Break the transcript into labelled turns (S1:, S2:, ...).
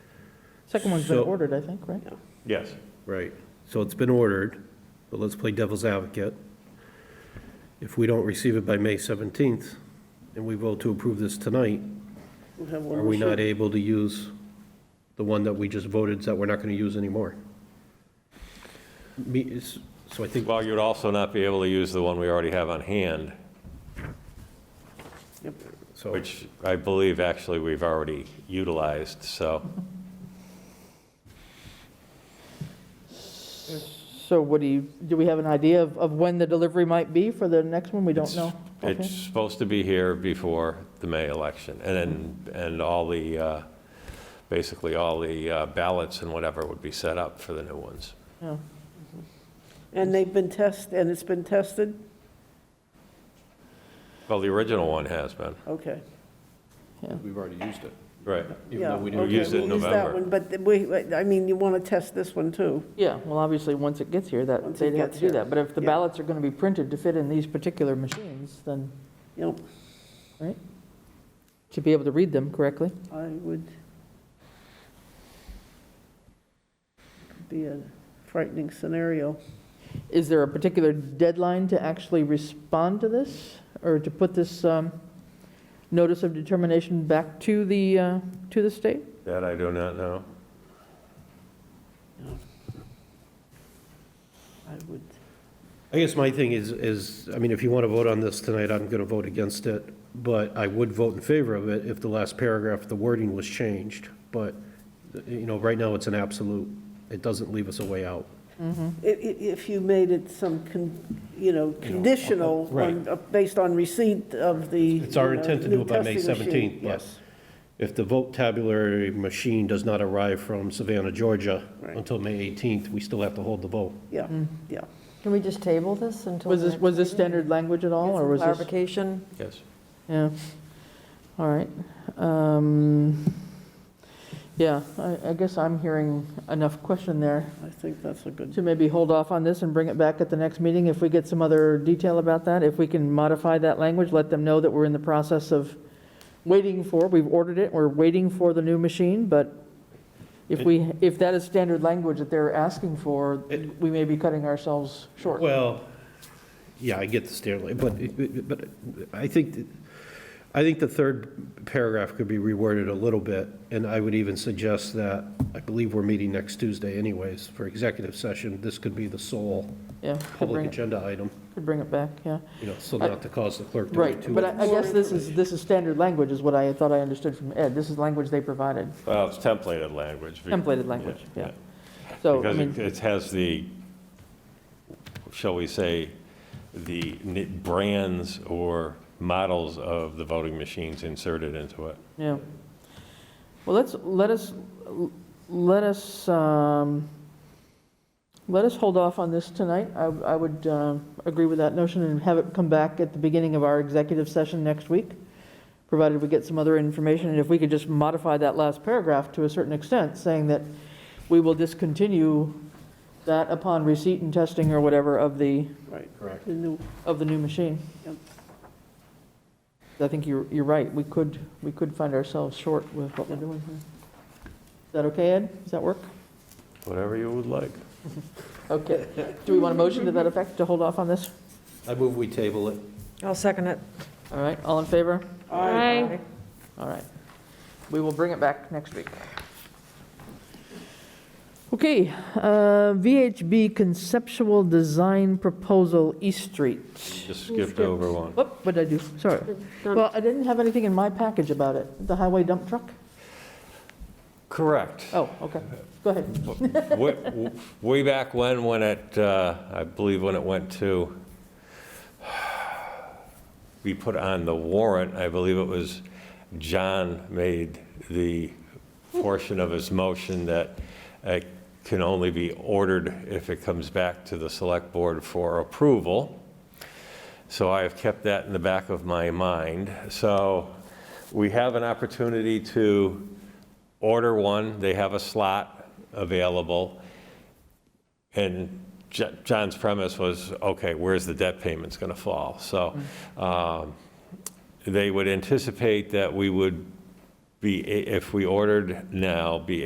S1: Second one's been
S2: So-
S1: ordered, I think, right?
S3: Yes.
S2: Right, so it's been ordered, but let's play devil's advocate. If we don't receive it by May 17th, and we vote to approve this tonight,
S4: We'll have one
S2: are we
S4: more
S2: not
S4: sheet.
S2: able to use the one that we just voted that we're not going to use anymore? Me, is- so I think,
S3: Well, you'd also not be able to use the one we already have on hand,
S4: Yep.
S2: so,
S3: which I believe actually we've already utilized, so.
S1: So what do you, do we have an idea of, of when the delivery might be for the next one? We don't
S3: It's-
S1: know. Okay.
S3: It's supposed to be here before the May election, and then, and all the, uh, basically all the uh, ballots and whatever would be set up for the new ones.
S1: Yeah.
S4: And they've been tested, and it's been tested?
S3: Well, the original one has been.
S4: Okay.
S2: we've already used it.
S3: Right.
S2: Even though
S4: Yeah,
S2: we
S3: didn't
S4: okay,
S3: use it in
S4: we'll that
S3: November.
S4: one, But we, I mean, you want to test this one too.
S1: Yeah, well, obviously, once it gets here, that,
S4: Once
S1: they'd
S4: it
S1: have to
S4: gets
S1: do
S4: here,
S1: that. But if the
S4: yeah.
S1: ballots are going to be printed to fit in these particular machines, then
S4: Yep,
S1: to be able to read them correctly.
S4: I would. Be a frightening scenario.
S1: Is there a particular deadline to actually respond to this? Or to put this um, notice of determination back to the, uh, to the state?
S3: That I do not know.
S4: I would,
S2: I guess my thing is, is, I mean, if you want to vote on this tonight, I'm going to vote against it, but I would vote in favor of it if the last paragraph, the wording was changed, but, you know, right now, it's an absolute, it doesn't leave us a way out.
S4: i- i- if you made it some, con- you know, conditional, on-
S2: right.
S4: uh, based on receipt of the.
S2: It's our
S4: you know,
S2: intent to do
S4: new
S2: it by May
S4: testing machine.
S2: 17th, but
S4: Yes,
S2: if the vote tabulary machine does not arrive from Savannah, Georgia,
S4: Right.
S2: until May 18th, we still have to hold the vote.
S4: yeah, yeah.
S5: Can we just table this until?
S1: Was
S5: the
S1: this,
S5: next
S1: was this
S5: meeting?
S1: standard language at all,
S5: Get
S1: or
S5: some
S1: was this?
S5: Clarification,
S3: Yes.
S1: Yeah, all right. Um, Yeah, I, I guess I'm hearing enough question there
S4: I think that's a good,
S1: to maybe hold off on this and bring it back at the next meeting if we get some other detail about that. If we can modify that language, let them know that we're in the process of waiting for, we've ordered it, we're waiting for the new machine, but if we, if that is standard language that they're asking for,
S2: It-
S1: we may be cutting ourselves short.
S2: Well, yeah, I get the stairway, but, but I think, that- I think the third paragraph could be reworded a little bit, and I would even suggest that, I believe we're meeting next Tuesday anyways for executive session. This could be the sole
S1: Yeah, could
S2: public
S1: bring, it-
S2: agenda item,
S1: could bring it back, yeah.
S2: you know, so not to cause the clerk to wait
S1: Right,
S2: too
S1: but
S2: much.
S1: I I guess this is, this is standard language, is what I thought I understood from Ed. This is language they provided,
S3: Well, it's templated language.
S1: templated language,
S3: Yeah,
S1: yeah. So, I
S3: Because it-
S1: mean,
S3: it has the, shall we say, the ni- brands or models of the voting machines inserted into it.
S1: yeah. Well, let's, let us, let us, um, let us hold off on this tonight. I I would uh, agree with that notion and have it come back at the beginning of our executive session next week, provided we get some other information. And if we could just modify that last paragraph to a certain extent, saying that we will discontinue that upon receipt and testing or whatever of the,
S4: right,
S2: Correct.
S4: the new,
S1: of the new machine.
S4: Yep.
S1: I think you're, you're right, we could, we could find ourselves short with what we're doing here. Is that okay, Ed? Does that work?
S3: Whatever you would like.
S1: Okay. Do we want a motion to that effect to hold off on this?
S2: I move we table it.
S5: I'll second it.
S1: All right, all in favor?
S5: Aye.
S1: All right. We will bring it back next week. Okay, uh, VHB conceptual design proposal, East Street.
S3: Just skipped over one.
S1: Whoop, what did I do? Sorry. Well, I didn't have anything in my package about it, the highway dump truck?
S3: Correct.
S1: Oh, okay, go ahead.
S3: Way- Way back when, when it, uh, I believe when it went to, we put on the warrant, I believe it was John made the portion of his motion that it can only be ordered if it comes back to the select board for approval. So I have kept that in the back of my mind. So we have an opportunity to order one, they have a slot available. And Jo- John's premise was, okay, where's the debt payments going to fall? So um, they would anticipate that we would be, if we ordered now, be